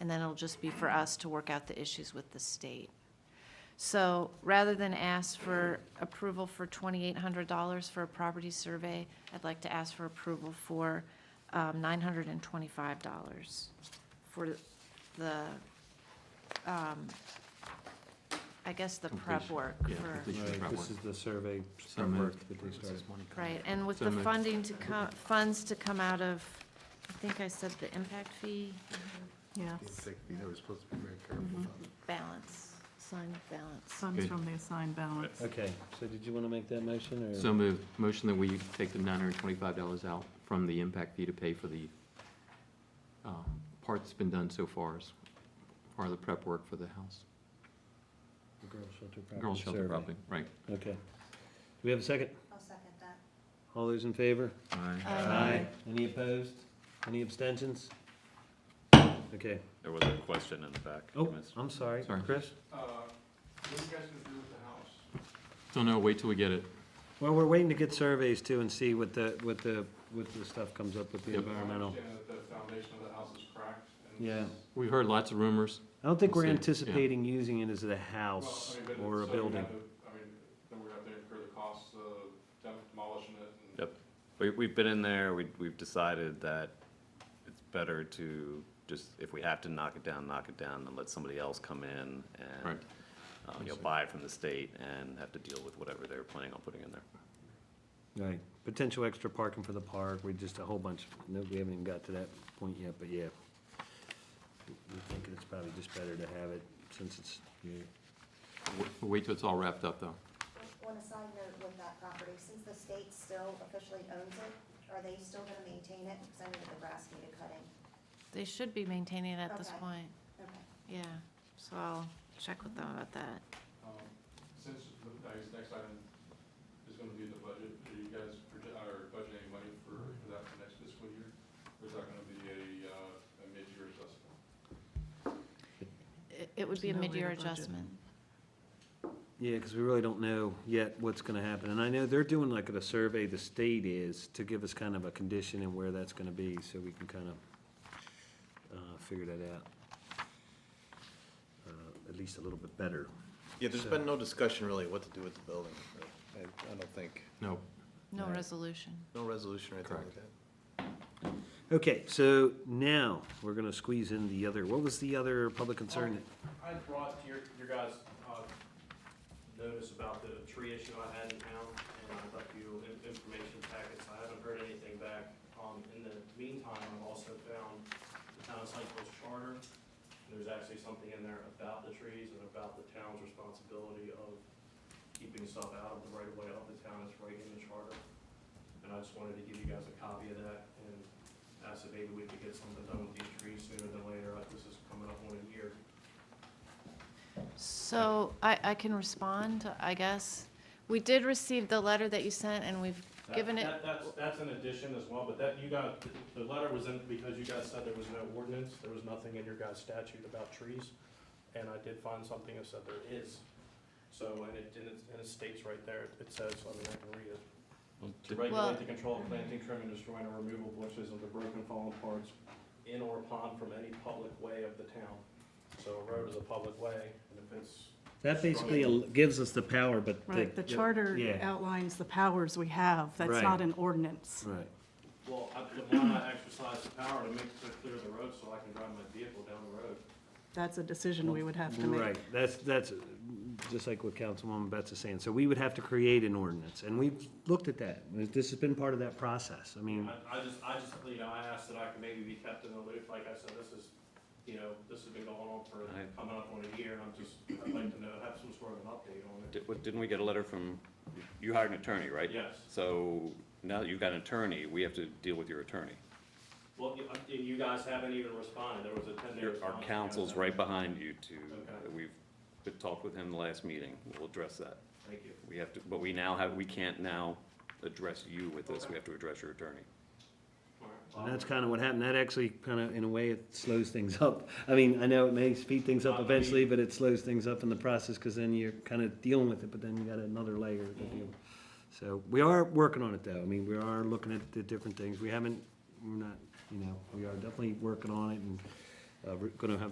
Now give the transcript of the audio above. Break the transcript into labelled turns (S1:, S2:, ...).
S1: and then it'll just be for us to work out the issues with the state. So rather than ask for approval for twenty-eight hundred dollars for a property survey, I'd like to ask for approval for um, nine hundred and twenty-five dollars for the, um, I guess, the prep
S2: Completion.
S1: work
S2: Yeah,
S1: for.
S2: completion of prep
S3: Right,
S2: work.
S3: this is the survey
S2: So
S3: prep work
S2: moved.
S3: that they started.
S1: Right, and with the
S2: So moved.
S1: funding to come, funds to come out of, I think I said the impact fee
S4: Yes,
S5: They were supposed to be very careful about it.
S1: balance, sign of balance.
S4: funds
S2: Good.
S4: from the assigned balance.
S3: Okay, so did you want to make that motion, or?
S2: So moved. Motion that we take the nine hundred and twenty-five dollars out from the impact fee to pay for the um, part that's been done so far, as- or the prep work for the house.
S3: The Girl Shelter Property
S2: Girl shelter
S3: Survey.
S2: probably, right.
S3: Okay. Do we have a second?
S6: I'll second that.
S3: All those in favor?
S1: Aye.
S3: Any opposed? Any abstentions? Okay.
S7: There was a question in the back. you
S3: Oh,
S7: missed.
S3: I'm sorry,
S2: Sorry.
S3: Chris?
S8: Uh,
S2: Don't know, wait till we get it.
S3: Well, we're waiting to get surveys too and see what the, what the, what the stuff comes up with the
S2: Yep.
S3: environmental. Yeah.
S2: We've heard lots of rumors.
S3: I don't think
S2: We'll
S3: we're
S2: see, yeah.
S3: anticipating using it as a house or a building.
S7: Yep. We, we've been in there, we, we've decided that it's better to just, if we have to knock it down, knock it down, and let somebody else come in and,
S2: Right.
S7: uh, you know, buy it from the state and have to deal with whatever they're planning on putting in there.
S3: Right, potential extra parking for the park, we just a whole bunch, no, we haven't even got to that point yet, but yeah. We think it's probably just better to have it since it's,
S2: W- Wait till it's all wrapped up, though.
S6: On a side note with that property, since the state still officially owns it, are they still gonna maintain it? Because I know that the grass needed cutting.
S1: They should be maintaining it at this
S6: Okay.
S1: point,
S6: Okay.
S1: yeah, so I'll check with them about that.
S8: um, Since the next, next item is gonna be the budget, are you guys, proje- are budgeting any money for for that for next fiscal year? Or is that gonna be a, uh, a mid-year adjustment?
S1: It, it would
S4: There's
S1: be a
S4: no way to
S1: mid-year
S4: budget.
S1: adjustment.
S3: yeah, because we really don't know yet what's gonna happen. And I know they're doing like a survey, the state is, to give us kind of a condition and where that's gonna be, so we can kind of, uh, figure that out. Uh, At least a little bit better.
S5: Yeah, there's
S3: So-
S5: been no discussion really what to do with the building. right? I, I don't think,
S2: No,
S1: No
S3: Right.
S1: resolution.
S5: no resolution or anything like that.
S3: Okay, so now, we're gonna squeeze in the other, what was the other public concern?
S9: Um, I brought to your, your guys', uh, notice about the tree issue I had in town, and I left you in- information packets, I haven't heard anything back. Um, in the meantime, I've also found the town of Sykesville's charter, and there's actually something in there about the trees and about the town's responsibility of keeping stuff out of the right of way of the town, it's right in the charter. And I just wanted to give you guys a copy of that, and ask if maybe we could get something done with these trees sooner than later, Uh, this is coming up on a year.
S1: So I, I can respond, I guess. We did receive the letter that you sent, and we've
S9: That-
S1: given it,
S9: that- That's, that's an addition as well, but that, you got, the letter was in, because you guys said there was no ordinance, there was nothing in your guys' statute about trees, and I did find something that said there is. So, and it, and it- and it states right there, it says, I mean, I can read it. To
S1: Well-
S9: regulate the control of planting, trimming, destroying, or removal of bushes of the broken fallen parts in or upon from any public way of the town. So a road is a public way, and if it's
S3: That basically al- gives us the power, but. the-
S4: Right, the charter
S3: Yeah.
S4: outlines the powers we have, that's
S3: Right.
S4: not an ordinance.
S3: Right,
S9: Well, I, but why not exercise the power to make, to clear the road so I can drive my vehicle down the road?
S4: That's a decision we would have to make.
S3: right, that's, that's, uh, just like what Councilwoman Betts is saying, so we would have to create an ordinance, and we've looked at that, this has been part of that process, I mean,
S9: I, I just, I just, you know, I asked that I could maybe be kept in the loop, like I said, this is, you know, this has been going on for,
S2: I-
S9: coming up on a year, and I'm just, I'd like to know, have some sort of an update on it.
S10: Di- what- Didn't we get a letter from, you hired an attorney, right?
S9: Yes.
S10: So now that you've got an attorney, we have to deal with your attorney.
S9: Well, you, uh, you guys haven't even responded, there was a ten day
S10: Your-
S9: response.
S10: Our counsel's right behind you
S9: Okay.
S10: to, we've we've talked with him the last meeting, we'll address that.
S9: Thank you.
S10: We have to, but we now have, we can't now address you with this,
S9: Okay.
S10: we have to address your attorney.
S9: All right.
S3: and that's kind of what happened, that actually kind of, in a way, it slows things up. I mean, I know it may speed things up eventually, but it slows things up in the process, because then you're kind of dealing with it, but then you got another layer to deal. with. So, we are working on it, though, I mean, we are looking at the different things, we haven't, we're not, you know, we are definitely working on it, and, uh, we're gonna have